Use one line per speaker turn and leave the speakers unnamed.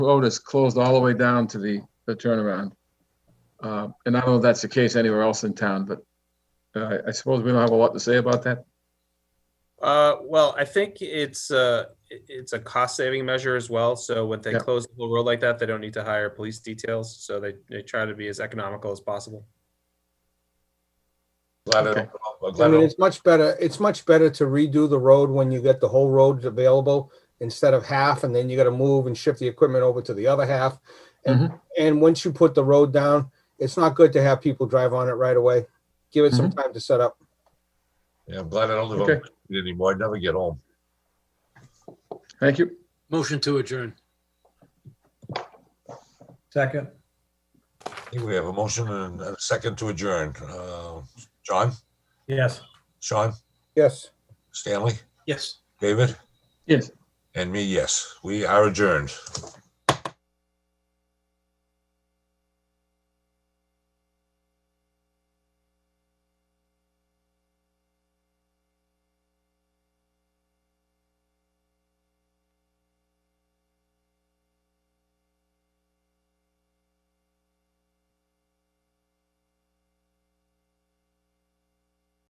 road is closed all the way down to the, the turnaround. Uh, and I don't know if that's the case anywhere else in town, but uh, I suppose we don't have a lot to say about that.
Uh, well, I think it's uh, it- it's a cost saving measure as well. So when they
Yeah.
close the whole road like that, they don't need to hire police details. So they, they try to be as economical as possible.
Glad I
Okay.
don't, I'm
I
glad I
mean,
don't,
it's much better, it's much better to redo the road when you get the whole road available instead of half, and then you gotta move and shift the equipment over to the other half. And, and once you put the road down, it's not good to have people drive on it right away. Give it some time to set up.
yeah, I'm glad I don't live on
Okay.
Main Street anymore. I'd never get home.
Thank you.
Motion to adjourn.
Second,
I think we have a motion and a second to adjourn. Uh, John,
yes.
Sean,
Yes.
Stanley,
Yes.
David?
Yes.
And me, yes. We are adjourned.